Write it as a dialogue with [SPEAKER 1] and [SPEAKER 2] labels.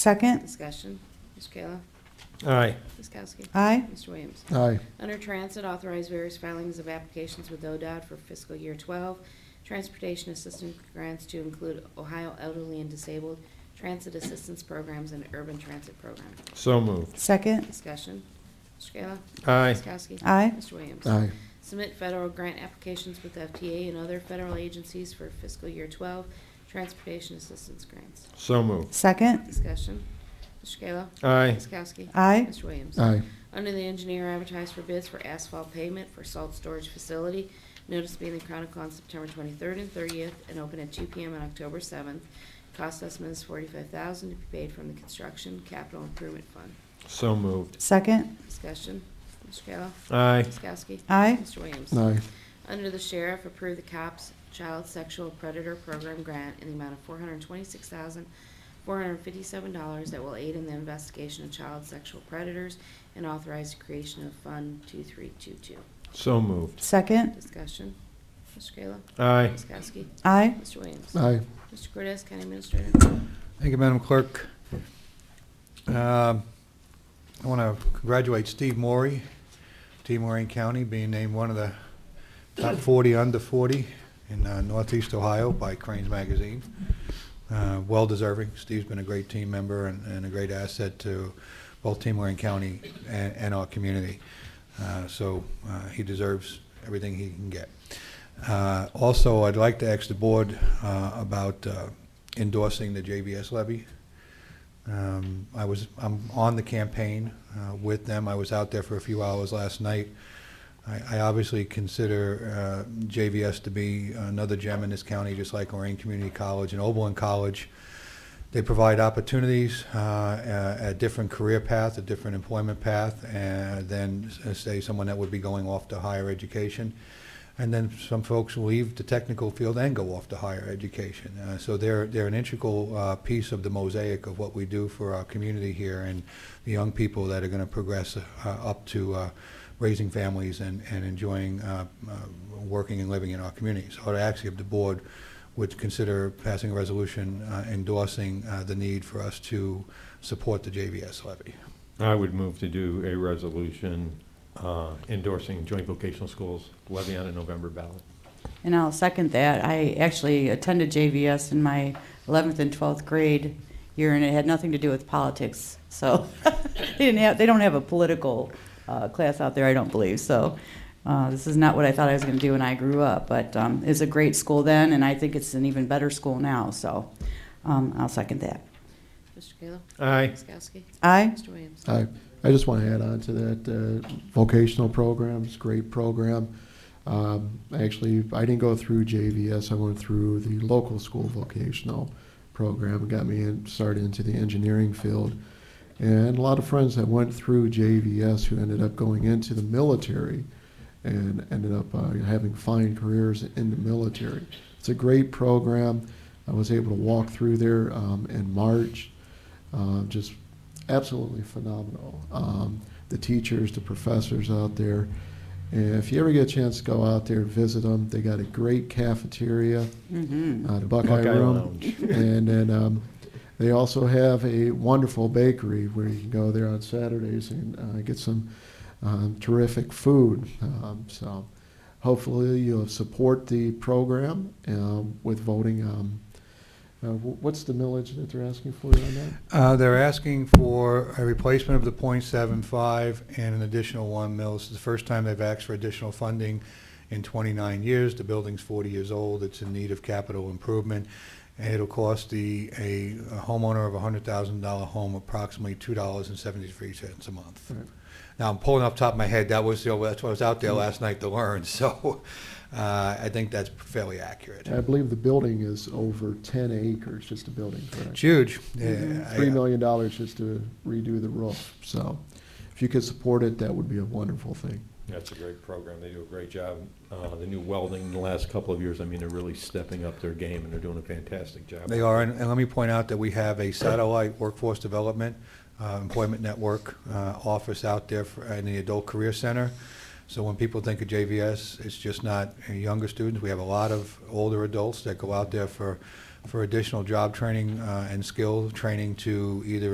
[SPEAKER 1] Second,
[SPEAKER 2] Discussion. Mr. Kayla.
[SPEAKER 3] Aye.
[SPEAKER 2] Ms. Kowski.
[SPEAKER 1] aye.
[SPEAKER 2] Mr. Williams.
[SPEAKER 4] aye,
[SPEAKER 2] Under Transit, authorize various filings of applications with ODOT for fiscal year 12, transportation assistance grants to include Ohio elderly and disabled, transit assistance programs, and urban transit program.
[SPEAKER 3] So moved.
[SPEAKER 1] Second,
[SPEAKER 2] Discussion. Mr. Kayla.
[SPEAKER 3] Aye.
[SPEAKER 2] Ms. Kowski.
[SPEAKER 1] Aye.
[SPEAKER 2] Mr. Williams.
[SPEAKER 4] aye,
[SPEAKER 2] Submit federal grant applications with FTA and other federal agencies for fiscal year 12, transportation assistance grants.
[SPEAKER 3] So moved.
[SPEAKER 1] second,
[SPEAKER 2] Discussion. Mr. Kayla.
[SPEAKER 3] Aye.
[SPEAKER 2] Ms. Kowski.
[SPEAKER 1] aye.
[SPEAKER 2] Mr. Williams.
[SPEAKER 4] aye,
[SPEAKER 2] Under the engineer advertised for bids for asphalt pavement for salt storage facility. Notice being in the Chronicle on September 23rd and 30th and open at 2 PM on October 7th. Cost estimate is 45000 to be paid from the Construction Capital Improvement Fund.
[SPEAKER 3] So moved.
[SPEAKER 1] Second,
[SPEAKER 2] Discussion. Mr. Kayla.
[SPEAKER 3] Aye.
[SPEAKER 2] Ms. Kowski.
[SPEAKER 1] aye.
[SPEAKER 2] Mr. Williams.
[SPEAKER 4] aye,
[SPEAKER 2] Under the sheriff, approve the COPS Child Sexual Predator Program Grant in the amount of four hundred twenty-six thousand, four hundred fifty-seven dollars that will aid in the investigation of child sexual predators and authorize the creation of Fund two-three-two-two.
[SPEAKER 3] So moved.
[SPEAKER 1] Second,
[SPEAKER 2] Discussion. Mr. Kayla.
[SPEAKER 3] Aye.
[SPEAKER 2] Ms. Kowski.
[SPEAKER 1] aye.
[SPEAKER 2] Mr. Williams.
[SPEAKER 4] aye.
[SPEAKER 2] Mr. Cortez, County Administrator.
[SPEAKER 5] Thank you, Madam Clerk. Um, I want to congratulate Steve Morey, Team Lorraine County, being named one of the top 40 under 40 in uh, Northeast Ohio by Cranes Magazine. Uh, Well deserving. Steve's been a great team member and and a great asset to both Team Lorraine County and and our community. Uh, So uh, he deserves everything he can get. Uh, Also, I'd like to ask the board uh, about uh, endorsing the JVS levy. Um, I was, I'm on the campaign uh, with them. I was out there for a few hours last night. I I obviously consider uh, JVS to be another gem in this county, just like Lorraine Community College and Oberlin College. They provide opportunities, uh, a a different career path, a different employment path, and then, uh, say, someone that would be going off to higher education. And then some folks leave the technical field and go off to higher education. Uh, so they're, they're an integral uh, piece of the mosaic of what we do for our community here and the young people that are going to progress uh, up to uh, raising families and, and enjoying uh, uh, working and living in our community. So I'd ask if the board would consider passing a resolution uh, endorsing uh, the need for us to support the JVS levy.
[SPEAKER 3] I would move to do a resolution uh, endorsing joint vocational schools levy on a November ballot.
[SPEAKER 6] And I'll second that. I actually attended JVS in my 11th and 12th grade year, and it had nothing to do with politics. So they didn't have, they don't have a political uh, class out there, I don't believe. So uh, this is not what I thought I was going to do when I grew up. But um, it was a great school then, and I think it's an even better school now. So um, I'll second that.
[SPEAKER 2] Mr. Kayla.
[SPEAKER 3] Aye.
[SPEAKER 2] Ms. Kowski.
[SPEAKER 1] Aye.
[SPEAKER 2] Mr. Williams.
[SPEAKER 4] I, I just want to add on to that, uh, vocational programs, great program. Um, Actually, I didn't go through JVS, I went through the local school vocational program, got me in- started into the engineering field. And a lot of friends that went through JVS who ended up going into the military and ended up uh, having fine careers in the military. It's a great program. I was able to walk through there um, in March. Uh, just absolutely phenomenal. Um, the teachers, the professors out there. And if you ever get a chance to go out there and visit them, they got a great cafeteria,
[SPEAKER 6] hmm
[SPEAKER 4] uh, Buckeye,
[SPEAKER 3] Buckeye
[SPEAKER 4] Room.
[SPEAKER 3] Lounge.
[SPEAKER 4] and then um, they also have a wonderful bakery where you can go there on Saturdays and uh, get some um, terrific food. Um, so hopefully you'll support the program um, with voting. Um, uh, wh- what's the millage that they're asking for on that?
[SPEAKER 5] Uh, They're asking for a replacement of the .75 and an additional one mil. This is the first time they've asked for additional funding in 29 years. The building's 40 years old. It's in need of capital improvement. And it'll cost the, a a homeowner of a $100,000 home approximately $2.73 a month.
[SPEAKER 4] Right.
[SPEAKER 5] Now, I'm pulling off the top of my head, that was, the- that's what I was out there last night to learn, so uh, I think that's fairly accurate.
[SPEAKER 4] I believe the building is over 10 acres, just the building,
[SPEAKER 5] It's
[SPEAKER 4] correct?
[SPEAKER 5] huge. Yeah, I- uh,
[SPEAKER 4] $3 million just to redo the roof. So if you could support it, that would be a wonderful thing.
[SPEAKER 3] That's a great program. They do a great job. Uh, The new welding in the last couple of years, I mean, they're really stepping up their game and they're doing a fantastic job.
[SPEAKER 5] They are, and and let me point out that we have a satellite workforce development, uh, employment network uh, office out there for- in the Adult Career Center. So when people think of JVS, it's just not uh, younger students. We have a lot of older adults that go out there for, for additional job training uh, and skill training to either